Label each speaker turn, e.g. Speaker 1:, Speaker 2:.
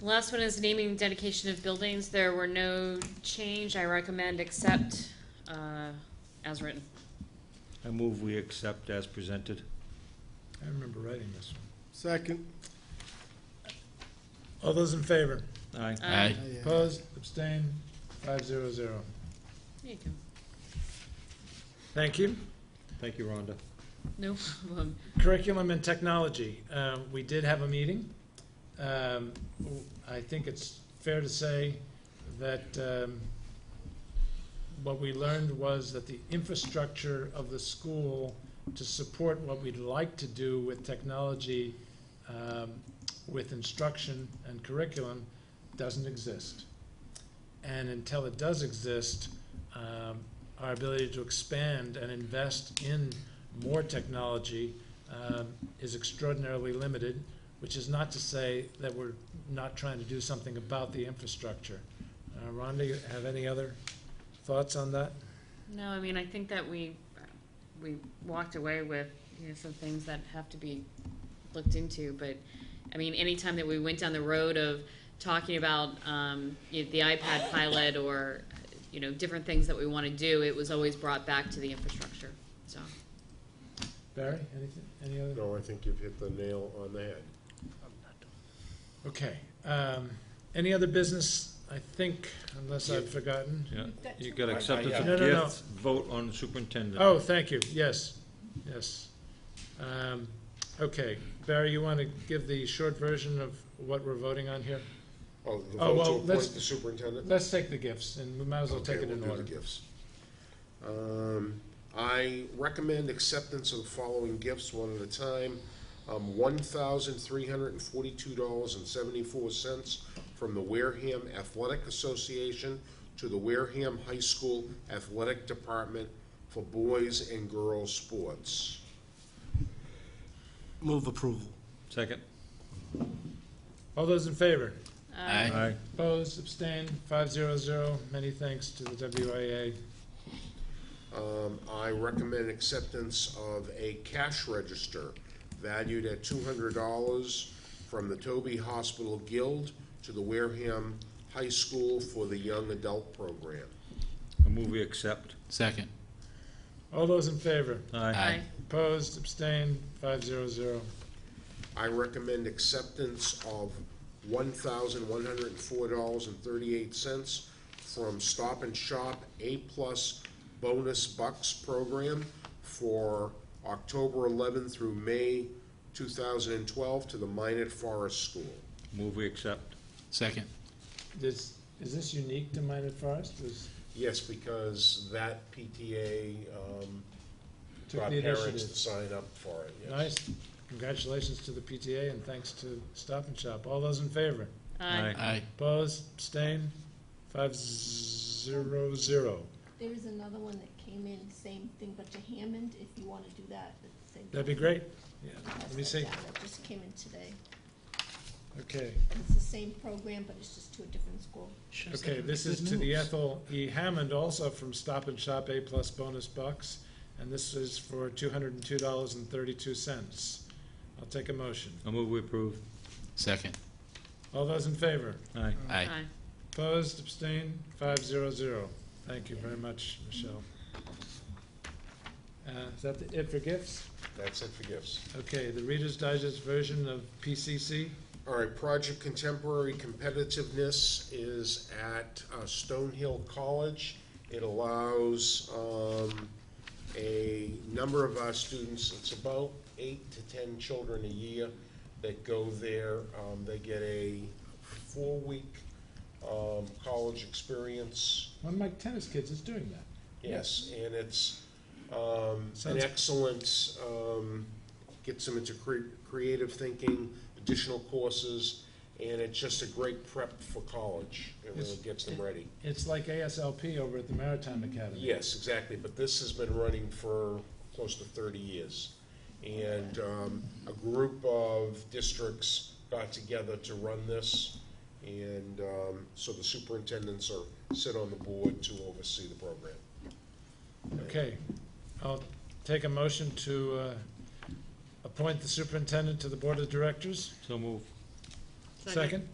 Speaker 1: The Last one is naming and dedication of buildings. There were no change. I recommend accept, uh, as written.
Speaker 2: I move we accept as presented.
Speaker 3: I remember writing this one.
Speaker 4: Second.
Speaker 3: All those in favor?
Speaker 2: Aye.
Speaker 1: Uh,
Speaker 5: Aye.
Speaker 3: Opposed, abstained, five zero zero.
Speaker 1: There you go.
Speaker 3: Thank you.
Speaker 2: Thank you, Rhonda.
Speaker 1: No problem.
Speaker 3: Curriculum and technology, Um, we did have a meeting. Um, w- I think it's fair to say that um, what we learned was that the infrastructure of the school to support what we'd like to do with technology, um, with instruction and curriculum, doesn't exist. And until it does exist, um, our ability to expand and invest in more technology um, is extraordinarily limited, which is not to say that we're not trying to do something about the infrastructure. Uh, Rhonda, you have any other thoughts on that?
Speaker 1: No, I mean, I think that we, we walked away with, you know, some things that have to be looked into, but, I mean, anytime that we went down the road of talking about, um, you know, the iPad pilot or, you know, different things that we want to do, it was always brought back to the infrastructure, so.
Speaker 3: Barry, anything, any other?
Speaker 4: No, I think you've hit the nail on the head.
Speaker 3: Okay. um, Any other business, I think, unless I've forgotten?
Speaker 2: Yeah,
Speaker 6: got
Speaker 2: you
Speaker 6: two
Speaker 2: got
Speaker 6: more.
Speaker 2: acceptance
Speaker 3: No,
Speaker 2: of
Speaker 3: no, no.
Speaker 2: gifts, vote on superintendent.
Speaker 3: Oh, thank you, yes, yes. Um, Okay, Barry, you want to give the short version of what we're voting on here?
Speaker 4: Oh, the
Speaker 3: Oh,
Speaker 4: vote
Speaker 3: well,
Speaker 4: to
Speaker 3: let's-
Speaker 4: appoint the superintendent?
Speaker 3: Let's take the gifts, and we might as well
Speaker 4: Okay,
Speaker 3: take it
Speaker 4: we'll
Speaker 3: in
Speaker 4: do the
Speaker 3: order.
Speaker 4: gifts. Um, I recommend acceptance of the following gifts one at a time. Um, one thousand three hundred and forty-two dollars and seventy-four cents from the Wareham Athletic Association to the Wareham High School Athletic Department for boys and girls sports.
Speaker 7: Move approval.
Speaker 2: Second.
Speaker 3: All those in favor?
Speaker 1: uh,
Speaker 2: Aye.
Speaker 3: Opposed, abstained, five zero zero. Many thanks to the WIA.
Speaker 4: Um, I recommend acceptance of a cash register valued at two hundred dollars from the Toby Hospital Guild to the Wareham High School for the Young Adult Program.
Speaker 2: I move we accept.
Speaker 5: Second.
Speaker 3: All those in favor?
Speaker 2: Aye.
Speaker 1: aye.
Speaker 3: Opposed, abstained, five zero zero.
Speaker 4: I recommend acceptance of one thousand one hundred and four dollars and thirty-eight cents from Stop and Shop A-plus Bonus Bucks Program for October eleventh through May two thousand and twelve to the Minot Forest School.
Speaker 2: Move we accept.
Speaker 5: Second.
Speaker 3: This, is this unique to Minot Forest? Was,
Speaker 4: Yes, because that PTA um,
Speaker 3: took
Speaker 4: brought
Speaker 3: the
Speaker 4: parents to
Speaker 3: initiative?
Speaker 4: sign up for it, yes.
Speaker 3: Nice. Congratulations to the PTA and thanks to Stop and Shop. All those in favor?
Speaker 1: Aye.
Speaker 5: Aye.
Speaker 3: Opposed, abstained, five zero zero.
Speaker 6: There is another one that came in, same thing, but to Hammond, if you wanna do that. at the same
Speaker 3: That'd be
Speaker 6: time.
Speaker 3: great. Yeah,
Speaker 6: Pass
Speaker 3: let me
Speaker 6: that
Speaker 3: see.
Speaker 6: down. That just came in today.
Speaker 3: Okay.
Speaker 6: And it's the same program, but it's just to a different school.
Speaker 3: Okay, this is to the Ethel E. Hammond, also from Stop and Shop A Plus Bonus Bucks, and this is for two hundred and two dollars and thirty-two cents. I'll take a motion.
Speaker 2: I move we approve.
Speaker 5: Second.
Speaker 3: All those in favor?
Speaker 2: Aye.
Speaker 5: Aye.
Speaker 1: Aye.
Speaker 3: Opposed, abstained, five zero zero. Thank you very much, Michelle. Uh, is that the- it for gifts?
Speaker 4: That's it for gifts.
Speaker 3: Okay, the Reader's Digest version of PCC.
Speaker 4: All right, Project Contemporary Competitiveness is at uh, Stonehill College. It allows um, a number of our students, it's about eight to 10 children a year that go there. Um, They get a four-week um, college experience.
Speaker 3: One of my tennis kids is doing that.
Speaker 4: Yes, and it's um, an
Speaker 3: Sounds-
Speaker 4: excellent, um, gets them into cre- creative thinking, additional courses, and it's just a great prep for college. It really
Speaker 3: Yes.
Speaker 4: gets them ready.
Speaker 3: It's like ASLP over at the Maritime Academy.
Speaker 4: Yes, exactly, but this has been running for close to 30 years. And um, a group of districts got together to run this, and um, so the superintendents are, sit on the board to oversee the program.
Speaker 3: Okay, I'll take a motion to uh, appoint the superintendent to the Board of Directors.
Speaker 2: So move.
Speaker 3: Second?